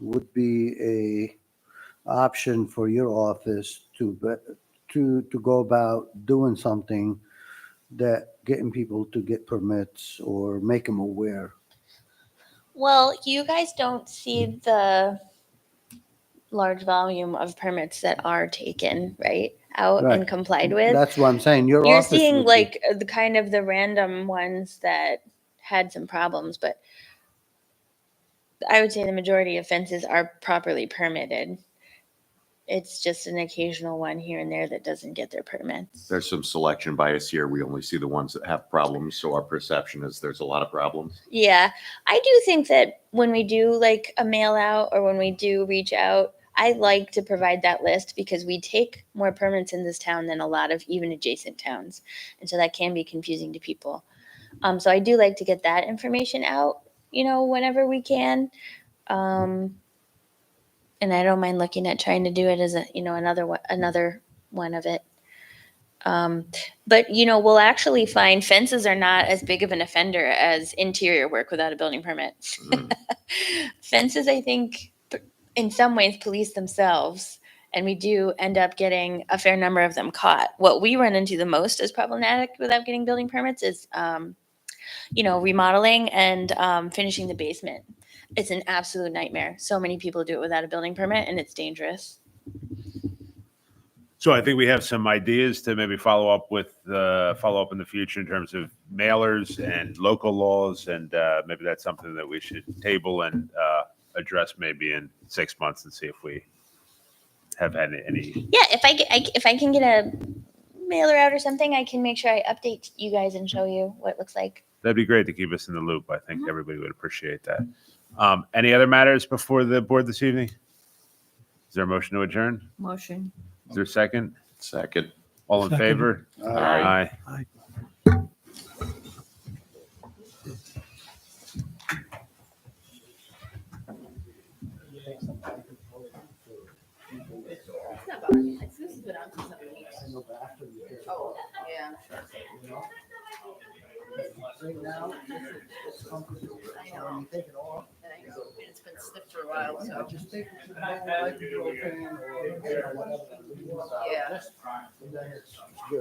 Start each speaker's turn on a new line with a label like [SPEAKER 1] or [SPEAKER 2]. [SPEAKER 1] would be a option for your office to, be- to, to go about doing something that getting people to get permits or make them aware.
[SPEAKER 2] Well, you guys don't see the large volume of permits that are taken, right? Out
[SPEAKER 1] Right.
[SPEAKER 2] and complied with.
[SPEAKER 1] That's what I'm saying. Your
[SPEAKER 2] You're
[SPEAKER 1] office would
[SPEAKER 2] seeing
[SPEAKER 1] be-
[SPEAKER 2] like uh, the kind of the random ones that had some problems, but I would say the majority of fences are properly permitted. It's just an occasional one here and there that doesn't get their permits.
[SPEAKER 3] There's some selection bias here. We only see the ones that have problems. So our perception is there's a lot of problems.
[SPEAKER 2] Yeah, I do think that when we do like a mail out or when we do reach out, I like to provide that list because we take more permits in this town than a lot of even adjacent towns. And so that can be confusing to people. Um, so I do like to get that information out, you know, whenever we can. Um, and I don't mind looking at trying to do it as a, you know, another one, another one of it. Um, but you know, we'll actually find fences are not as big of an offender as interior work without a building permit.
[SPEAKER 3] Mm.
[SPEAKER 2] fences, I think, p- in some ways, police themselves, and we do end up getting a fair number of them caught. What we run into the most as problematic without getting building permits is, um, you know, remodeling and um, finishing the basement. It's an absolute nightmare. So many people do it without a building permit, and it's dangerous.
[SPEAKER 4] So I think we have some ideas to maybe follow up with, uh, follow up in the future in terms of mailers and local laws. And, uh, maybe that's something that we should table and, uh, address maybe in six months and see if we have had any,
[SPEAKER 2] Yeah, if I, get, I if I can get a mailer out or something, I can make sure I update you guys and show you what it looks like.
[SPEAKER 4] that'd be great to keep us in the loop. I think
[SPEAKER 2] Mhm.
[SPEAKER 4] everybody would appreciate that. Um, any other matters before the board this evening? Is there a motion to adjourn?
[SPEAKER 5] Motion.
[SPEAKER 4] Is there a second?
[SPEAKER 3] Second.
[SPEAKER 4] All in favor?
[SPEAKER 3] Aye.
[SPEAKER 4] Aye.
[SPEAKER 5] Oh, yeah. And I know, It's been stiff for a while, so, yeah.